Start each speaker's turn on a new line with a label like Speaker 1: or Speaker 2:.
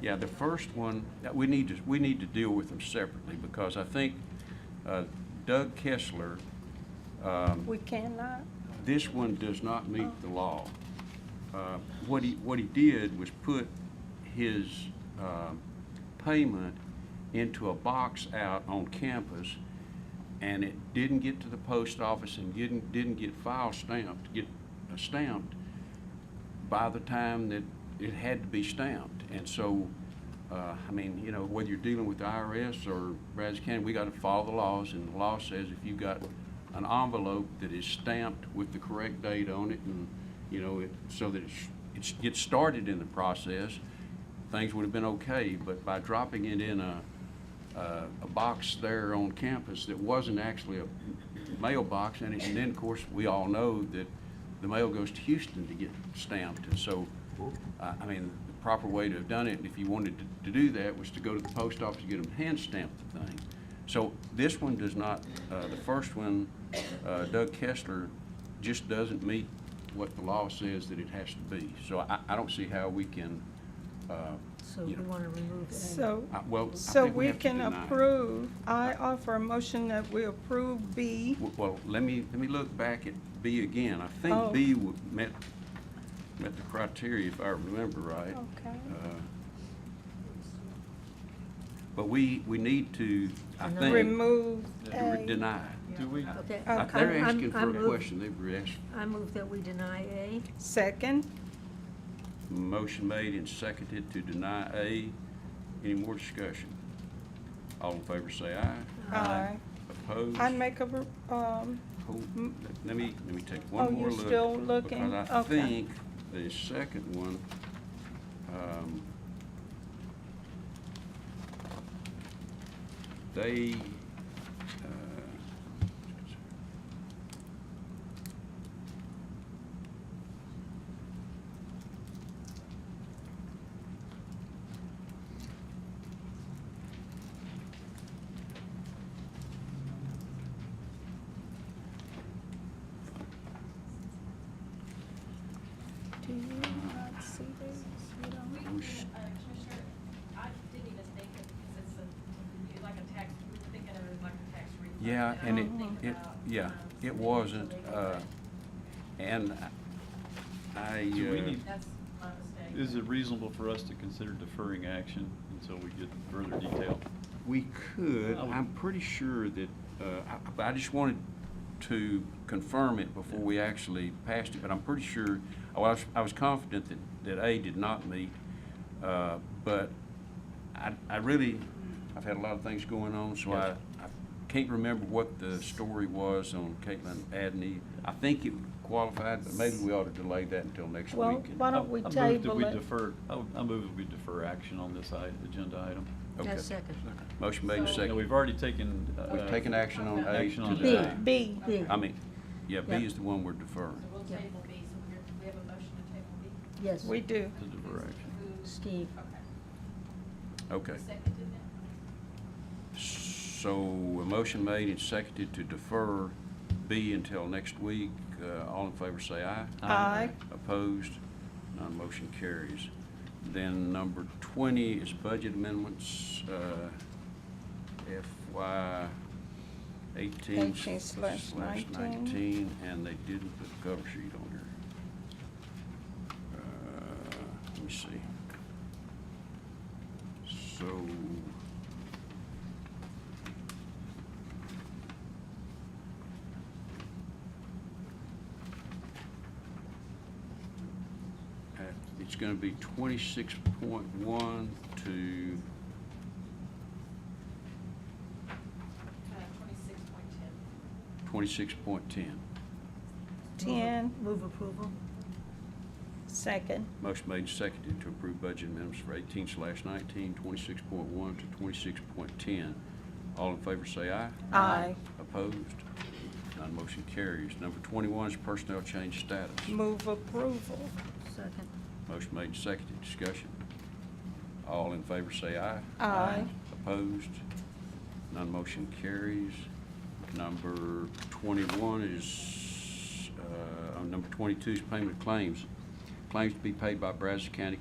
Speaker 1: Yeah, the first one, that we need to, we need to deal with them separately because I think uh, Doug Kessler, um,
Speaker 2: We cannot?
Speaker 1: this one does not meet the law. Uh, What he, what he did was put his um, payment into a box out on campus, and it didn't get to the post office and didn't, didn't get file stamped, get uh, stamped by the time that it had to be stamped. And so, uh, I mean, you know, whether you're dealing with the IRS or Brazos County, we got to follow the laws, and the law says if you've got an envelope that is stamped with the correct date on it, and, you know, it, so that it's- it's, gets started in the process, things would have been okay, but by dropping it in a, uh, a box there on campus that wasn't actually a mailbox, and it- and then, of course, we all know that the mail goes to Houston to get stamped, and so, I I mean, the proper way to have done it, if you wanted to- to do that, was to go to the post office and get them hand-stamp the thing. So this one does not, uh, the first one, uh, Doug Kessler, just doesn't meet what the law says that it has to be. So I, I don't see how we can, uh,
Speaker 3: So we
Speaker 1: you know,
Speaker 3: want to remove A.
Speaker 2: So,
Speaker 1: I- well, I
Speaker 2: so
Speaker 1: think we
Speaker 2: we
Speaker 1: have to
Speaker 2: can
Speaker 1: deny it.
Speaker 2: approve, I offer a motion that we approve B.
Speaker 1: W- Well, let me, let me look back at B again. I
Speaker 2: Oh.
Speaker 1: think B wa- met, met the criteria, if I remember right.
Speaker 2: Okay.
Speaker 1: Uh, But we, we need to, I
Speaker 3: Deny.
Speaker 1: think.
Speaker 2: Remove
Speaker 1: to re-
Speaker 2: A.
Speaker 1: Deny.
Speaker 4: Do we,
Speaker 3: Okay.
Speaker 1: Uh,
Speaker 3: I-
Speaker 1: They're
Speaker 3: Oh, I'm-
Speaker 1: asking
Speaker 3: I
Speaker 1: for a
Speaker 3: move-
Speaker 1: question. They've asked,
Speaker 3: I move that we deny A.
Speaker 2: Second,
Speaker 1: motion made and seconded to deny A. Any more discussion? All in favor say aye.
Speaker 2: Aye.
Speaker 1: Opposed?
Speaker 2: I make a, re- um,
Speaker 1: Hold-
Speaker 2: Mm.
Speaker 1: let- Let me, let me take
Speaker 2: Oh,
Speaker 1: one more
Speaker 2: you're
Speaker 1: look.
Speaker 2: still looking?
Speaker 1: Because I
Speaker 2: Okay.
Speaker 1: think the second one, um, they, uh,
Speaker 2: do you not see this? You
Speaker 5: We
Speaker 2: don't-
Speaker 5: can, uh, Commissioner, I didn't even think of, because it's a, like a tax, we were thinking of it as like a tax refund.
Speaker 1: yeah,
Speaker 5: I
Speaker 1: and
Speaker 5: didn't
Speaker 1: it,
Speaker 5: think
Speaker 1: it,
Speaker 5: about,
Speaker 1: yeah,
Speaker 5: um,
Speaker 1: it wasn't, uh, and I,
Speaker 4: Do we
Speaker 1: uh,
Speaker 4: need-
Speaker 5: That's my mistake.
Speaker 4: is it reasonable for us to consider deferring action until we get further detail?
Speaker 1: We could,
Speaker 4: I would-
Speaker 1: I'm pretty sure that, uh, I- but I just wanted to confirm it before we actually passed it, but I'm pretty sure, oh, I was, I was confident that, that A did not meet, uh, but I, I really, I've had a lot of things going on, so I, I can't remember what the story was on Caitlin Adney. I think it qualified, but maybe we ought to delay that until next
Speaker 2: Well,
Speaker 1: week. and-
Speaker 2: why don't we
Speaker 4: I- I move that
Speaker 2: table
Speaker 4: we
Speaker 2: it?
Speaker 4: defer, I would- I move that we defer action on this i- agenda item.
Speaker 1: okay.
Speaker 3: That's second.
Speaker 1: Motion made and
Speaker 5: So-
Speaker 4: Now,
Speaker 1: seconded.
Speaker 4: we've already taken. uh,
Speaker 1: We've taken action on A
Speaker 4: Action on
Speaker 1: to
Speaker 2: B,
Speaker 1: delay.
Speaker 2: B.
Speaker 3: B,
Speaker 1: I mean, yeah, B
Speaker 3: Yeah.
Speaker 1: is the one we're
Speaker 5: So
Speaker 1: deferring.
Speaker 5: we'll
Speaker 3: Yeah.
Speaker 5: table B, so we're, we have a motion to table B?
Speaker 3: yes.
Speaker 2: We do.
Speaker 4: To defer action.
Speaker 3: Steve.
Speaker 5: Okay.
Speaker 1: Okay.
Speaker 5: Seconded then?
Speaker 1: So a motion made and seconded to defer B until next week. Uh, All in favor say aye.
Speaker 2: Aye.
Speaker 1: Opposed? None motion carries. Then number 20 is budget amendments, uh, FY 18
Speaker 2: 18 slash 19.
Speaker 1: 19, and they didn't put the cover sheet on here. Uh, Let me see. So Uh, It's gonna be twenty-six point one to,
Speaker 5: Uh, Twenty-six point ten.
Speaker 1: twenty-six point ten.
Speaker 2: Ten,
Speaker 3: Move approval.
Speaker 2: second.
Speaker 1: Motion made and seconded to approve budget amendments for eighteen slash 19, 26.1 to twenty-six point ten. All in favor say aye.
Speaker 2: Aye.
Speaker 1: Opposed? None motion carries. Number twenty-one is personnel change status.
Speaker 2: Move approval.
Speaker 3: Second.
Speaker 1: Motion made and seconded. Discussion. All in favor say aye.
Speaker 2: Aye.
Speaker 1: Opposed? None motion carries. Number 21 is, uh, oh, number 22 is payment of claims. Claims to be paid by Brazos County